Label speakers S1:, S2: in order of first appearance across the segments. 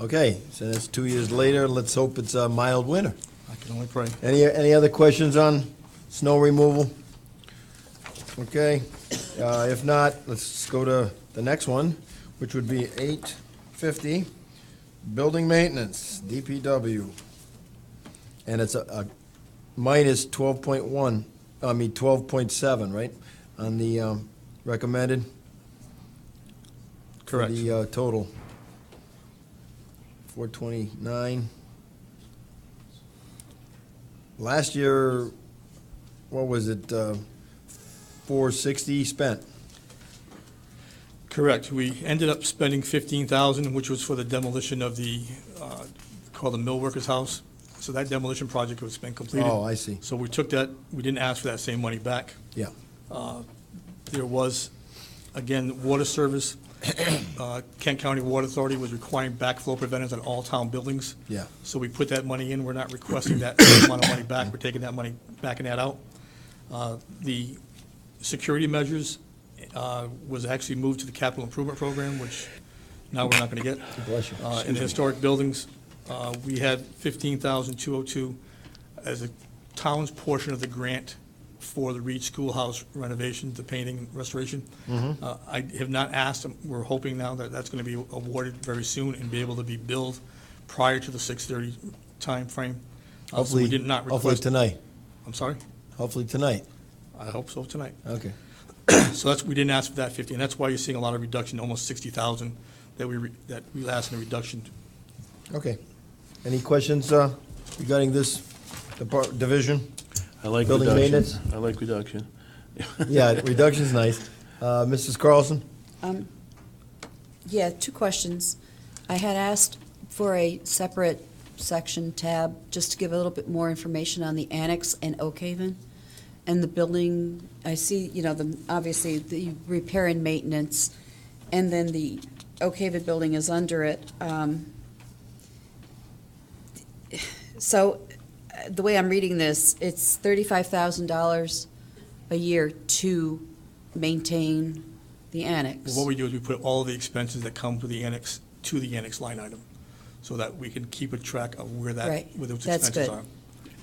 S1: Okay, so that's two years later. Let's hope it's a mild winter.
S2: I can only pray.
S1: Any, any other questions on snow removal? Okay, uh, if not, let's go to the next one, which would be eight fifty, building maintenance, DPW. And it's a, a minus twelve point one, I mean, twelve point seven, right, on the, um, recommended?
S2: Correct.
S1: For the, uh, total. Four twenty-nine. Last year, what was it, uh, four sixty spent?
S2: Correct. We ended up spending fifteen thousand, which was for the demolition of the, uh, called the mill workers house. So that demolition project was been completed.
S1: Oh, I see.
S2: So we took that, we didn't ask for that same money back.
S1: Yeah.
S2: Uh, There was, again, water service. Uh, Kent County Water Authority was requiring backflow preventers on all town buildings.
S1: Yeah.
S2: So we put that money in. We're not requesting that same amount of money back. We're taking that money, backing that out. Uh, The security measures uh, was actually moved to the capital improvement program, which now we're not going to get.
S1: Bless you.
S2: Uh, In the historic buildings, uh, we had 15,202 as a town's portion of the grant for the Reed Schoolhouse renovation, the painting and restoration.
S1: Mm-hmm.
S2: Uh, I have not asked, we're hoping now that that's going to be awarded very soon and be able to be billed prior to the 6:30 timeframe. Uh, So
S1: Hopefully,
S2: we did not
S1: Hopefully
S2: request,
S1: tonight,
S2: I'm sorry,
S1: hopefully tonight.
S2: I hope so tonight.
S1: Okay.
S2: So that's, we didn't ask for that 50, and that's why you're seeing a lot of reduction, almost 60,000 that we, re- that we asked in a reduction
S1: Okay. Any questions uh, regarding this depart, division?
S3: I like
S1: Building
S3: reduction.
S1: maintenance?
S3: I like reduction.
S1: Yeah, reduction's nice. Uh, Mrs. Carlson?
S4: Um, Yeah, two questions. I had asked for a separate section tab, just to give a little bit more information on the annex and Oak Haven. And the building, I see, you know, the, obviously, the repair and maintenance, and then the Oak Haven building is under it. Um, So, uh, the way I'm reading this, it's thirty-five thousand dollars a year to maintain the annex.
S2: Well, What we do is we put all the expenses that come to the annex, to the annex line item, so that we can keep a track of where that,
S4: Right.
S2: where those
S4: That's
S2: expenses
S4: good.
S2: are.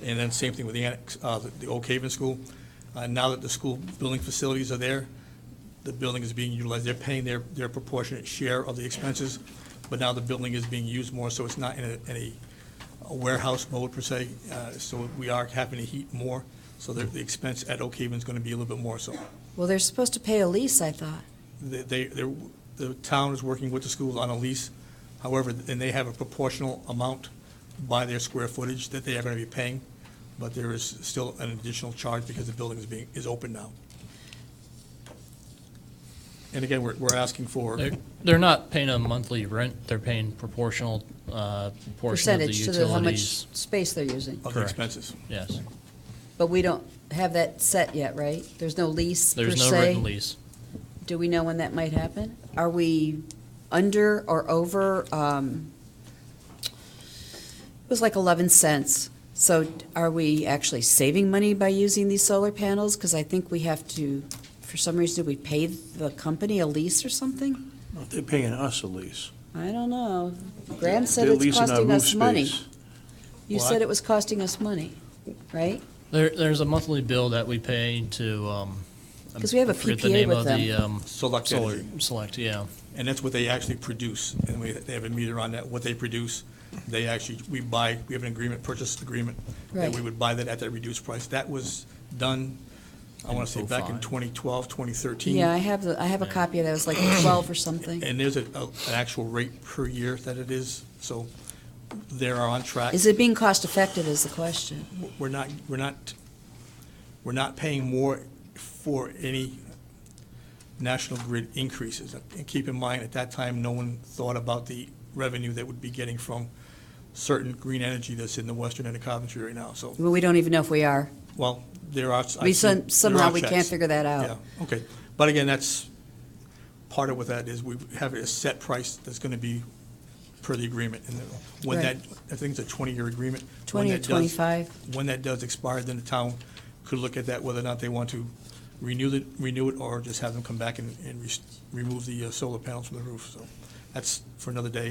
S2: And then same thing with the annex, uh, the the Oak Haven School. Uh, Now that the school building facilities are there, the building is being utilized, they're paying their, their proportionate share of the expenses, but now the building is being used more, so it's not in a, in a a warehouse mode per se, Uh, so we are having to heat more, so the, the expense at Oak Haven is gonna be a little bit more so.
S4: Well, they're supposed to pay a lease, I thought.
S2: They- They, they're- the town is working with the schools on a lease, however, and they have a proportional amount by their square footage that they are going to be paying, but there is still an additional charge because the building is being, is open now. And again, we're, we're asking for,
S5: They're, they're not paying a monthly rent, they're paying proportional, uh, portion of the
S4: Percentage to the, how
S5: utilities.
S4: much space they're using.
S2: of the
S5: Correct.
S2: expenses.
S5: Yes,
S4: But we don't have that set yet, right? There's no lease per
S5: there's no written
S4: se.
S5: lease.
S4: Do we know when that might happen? Are we under or over? um, It was like 11 cents. So are we actually saving money by using these solar panels? Because I think we have to, for some reason, do we pay the company a lease or something?
S3: No, They're paying us a lease.
S4: I don't know. Graham said
S3: They're
S4: it's
S3: leasing our
S4: costing
S3: roof
S4: us money.
S3: space.
S4: You
S2: Well, I-
S4: said it was costing us money, right?
S5: There, there's a monthly bill that we pay to, um. I
S4: 'Cause we have a
S5: forget the
S4: PPA
S5: name
S4: with
S5: of the, um,
S2: Select
S5: solar-
S2: Energy.
S5: Select, yeah.
S2: And that's what they actually produce, and we, they have a meter on that, what they produce, they actually, we buy, we have an agreement, purchase agreement, that
S4: Right.
S2: we would buy that at that reduced price. That was done, I want to say, back in
S5: 2005.
S2: 2012, 2013.
S4: Yeah, I have, the I have a copy of that, it was like 12 or something.
S2: And there's a, a- an actual rate per year that it is, so they are on track.
S4: Is it being cost-effective is the question.
S2: We're not, we're not, we're not paying more for any national grid increases. And keep in mind, at that time, no one thought about the revenue that would be getting from certain green energy that's in the western end of Coventry right now, so,
S4: Well, we don't even know if we are.
S2: well, there are. I
S4: We
S2: see-
S4: some-
S2: there are
S4: somehow we can't
S2: checks.
S4: figure that out.
S2: Yeah, okay. But again, that's, part of what that is, we have a set price that's going to be per the agreement. And then when that,
S4: Right.
S2: I think it's a 20-year agreement. When
S4: 20 or
S2: that does-
S4: 25.
S2: When that does expire, then the town could look at that, whether or not they want to renew it, renew it, or just have them come back and, and re- remove the uh, solar panels from the roof. So that's for another day